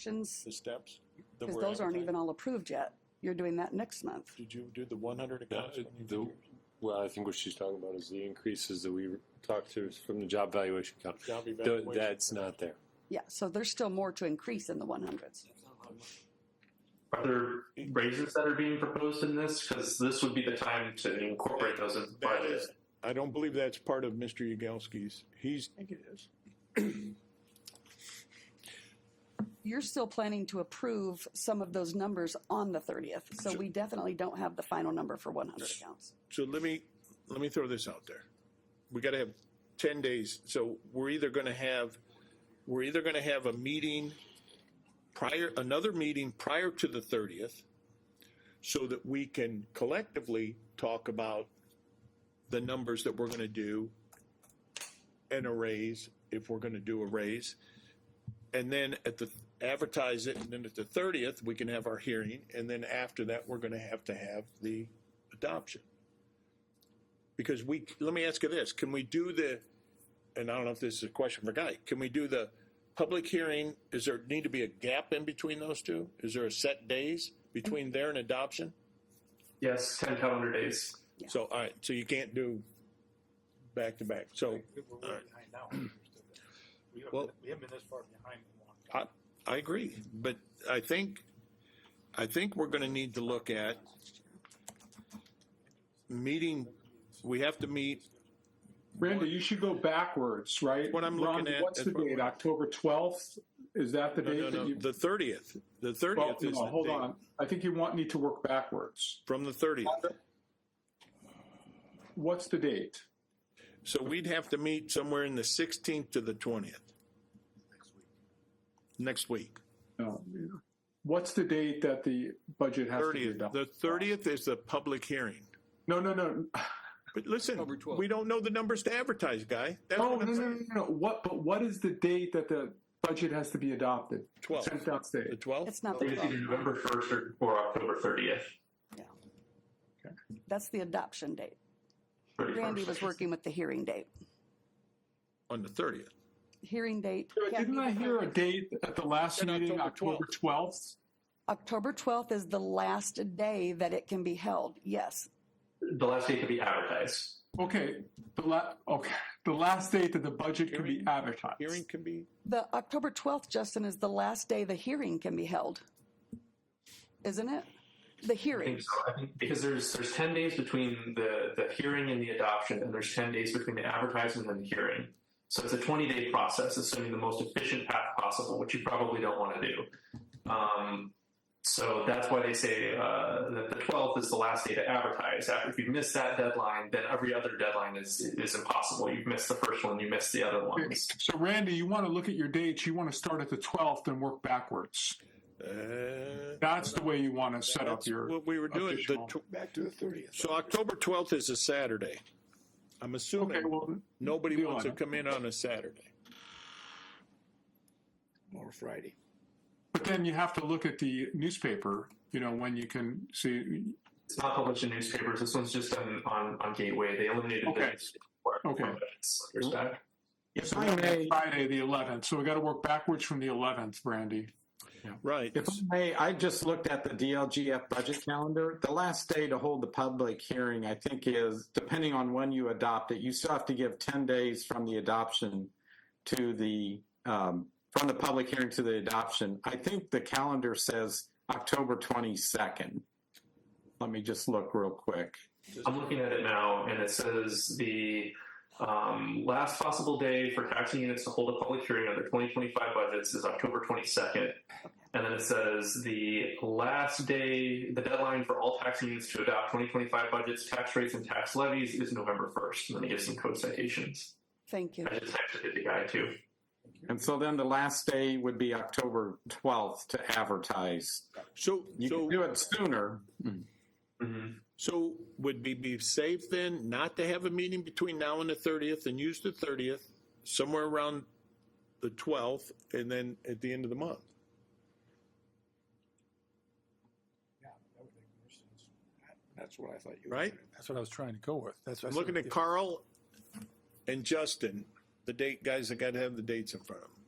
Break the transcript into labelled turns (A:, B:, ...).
A: additions,
B: the steps? that
A: because
B: were
A: those aren't
B: advertised?
A: even all approved yet. You're doing that next month.
B: Did you do the one hundred
C: Yeah,
B: accounts? when you
C: it- the,
B: figured?
C: well, I think what she's talking about is the increases that we talked to from the job valuation count.
B: Job
C: Th-
B: evaluation.
C: That's not there.
A: Yeah, so there's still more to increase in the one hundreds.
D: Are there raises that are being proposed in this? Because this would be the time to incorporate those in the
B: That
D: budget.
B: is- I don't believe that's part of Mr. Yagowski's. He's. I think it is.
A: You're still planning to approve some of those numbers on the thirtieth, so we definitely don't have the final number for one hundred accounts.
B: So let me, let me throw this out there. We gotta have ten days, so we're either gonna have, we're either gonna have a meeting prior, another meeting prior to the thirtieth, so that we can collectively talk about the numbers that we're gonna do and a raise, if we're gonna do a raise. And then at the, advertise it, and then at the thirtieth, we can have our hearing, and then after that, we're gonna have to have the adoption. Because we, let me ask you this, can we do the, and I don't know if this is a question for Guy, can we do the public hearing? Is there need to be a gap in between those two? Is there a set days between there and adoption?
D: Yes, ten calendar days.
A: Yeah.
B: So, all right, so you can't do back to back. So
E: We're way behind now. We haven't,
B: Well-
E: been- we haven't been this far behind in a long time.
B: I, I agree, but I think, I think we're gonna need to look at meeting, we have to meet,
F: Randy, you should go backwards, right?
B: What I'm
F: Ron,
B: looking at
F: What's
B: is
F: the
B: what
F: date?
B: we're-
F: October twelfth? Is that the
B: no,
F: date?
B: no,
F: that
B: no,
F: you-
B: the thirtieth. The
F: Well,
B: thirtieth
F: no,
B: is the
F: hold
B: date.
F: on. I think you want, need to work backwards.
B: From the thirtieth.
F: What's the date?
B: So we'd have to meet somewhere in the 16th to the 20th. Next week.
F: No. What's the date that the budget has to be
B: 30th. The
F: adopted?
B: 30th is the public hearing.
F: No, no, no.
B: But listen, we don't know the numbers to advertise, guy. That's
F: Oh,
B: what
F: no,
B: I'm
F: no, no,
B: saying.
F: no. What, but what is the date that the budget has to be adopted?
B: 12th.
F: Sent out
B: The
F: date.
B: 12th?
A: It's not the
D: It's either
A: 12th.
D: November first or, or October thirtieth.
A: That's the adoption date. Randy was working with the hearing date.
B: On the 30th.
A: Hearing date.
F: Yeah,
A: can't
F: Didn't
A: be
F: I
A: the
F: hear a
A: 30th.
F: date at the last
B: Said
F: meeting,
B: October
F: October twelfth?
A: October twelfth is the last day that it can be held, yes.
D: The last date to be advertised.
F: Okay, the la, okay, the last date that the budget can be
B: Hearing-
F: advertised.
B: Hearing can be,
A: The October twelfth, Justin, is the last day the hearing can be held. Isn't it? The
D: I
A: hearing.
D: think so. I think because there's there's ten days between the the hearing and the adoption, and there's ten days between the advertisement and the hearing. So it's a twenty day process, assuming the most efficient path possible, which you probably don't want to do. Um, so that's why they say uh, that the twelfth is the last day to advertise. After if you miss that deadline, then every other deadline is is impossible. You've missed the first one, you missed the other ones.
F: So Randy, you want to look at your dates, you want to start at the twelfth and work backwards.
B: uh,
F: That's the way you want to set up
B: that's
F: your,
B: what we were doing. The
F: official-
B: tw-
E: Back to the thirtieth.
B: So October 12th is a Saturday. I'm
F: okay,
B: assuming
F: well,
B: nobody
F: deal
B: wants
F: on
B: to
F: it.
B: come in on a Saturday.
E: Or Friday.
F: but then you have to look at the newspaper, you know, when you can see,
D: It's not published in newspapers. This one's just on on, on Gateway. They eliminated
F: Okay.
D: the newspaper for-
F: Okay.
D: for minutes, years back.
E: If I may,
F: Friday, the eleventh, so we got to work backwards from the eleventh, Randy.
B: Right.
E: if I may, I just looked at the DLGF budget calendar. The last day to hold the public hearing, I think, is depending on when you adopt it. You still have to give ten days from the adoption to the um, from the public hearing to the adoption. I think the calendar says October twenty second. Let me just look real quick.
D: I'm looking at it now, and it says the um, last possible day for taxing units to hold a public hearing on their 2025 budgets is October 22nd. And then it says the last day, the deadline for all taxing units to adopt 2025 budgets, tax rates, and tax levies is November 1st. And then it gives some code citations.
A: Thank you.
D: I just texted it to Guy, too.
E: And so then the last day would be October 12th to advertise.
B: So,
E: You
B: so.
E: can do it sooner.
D: hmm
B: So would we be safe then not to have a meeting between now and the thirtieth and use the thirtieth somewhere around the twelfth and then at the end of the month?
E: Yeah, that would make more sense. That's what I thought you.
B: Right?
G: That's what I was trying to go with. That's
B: I'm looking at Carl and Justin, the date guys that got to have the dates in front of them.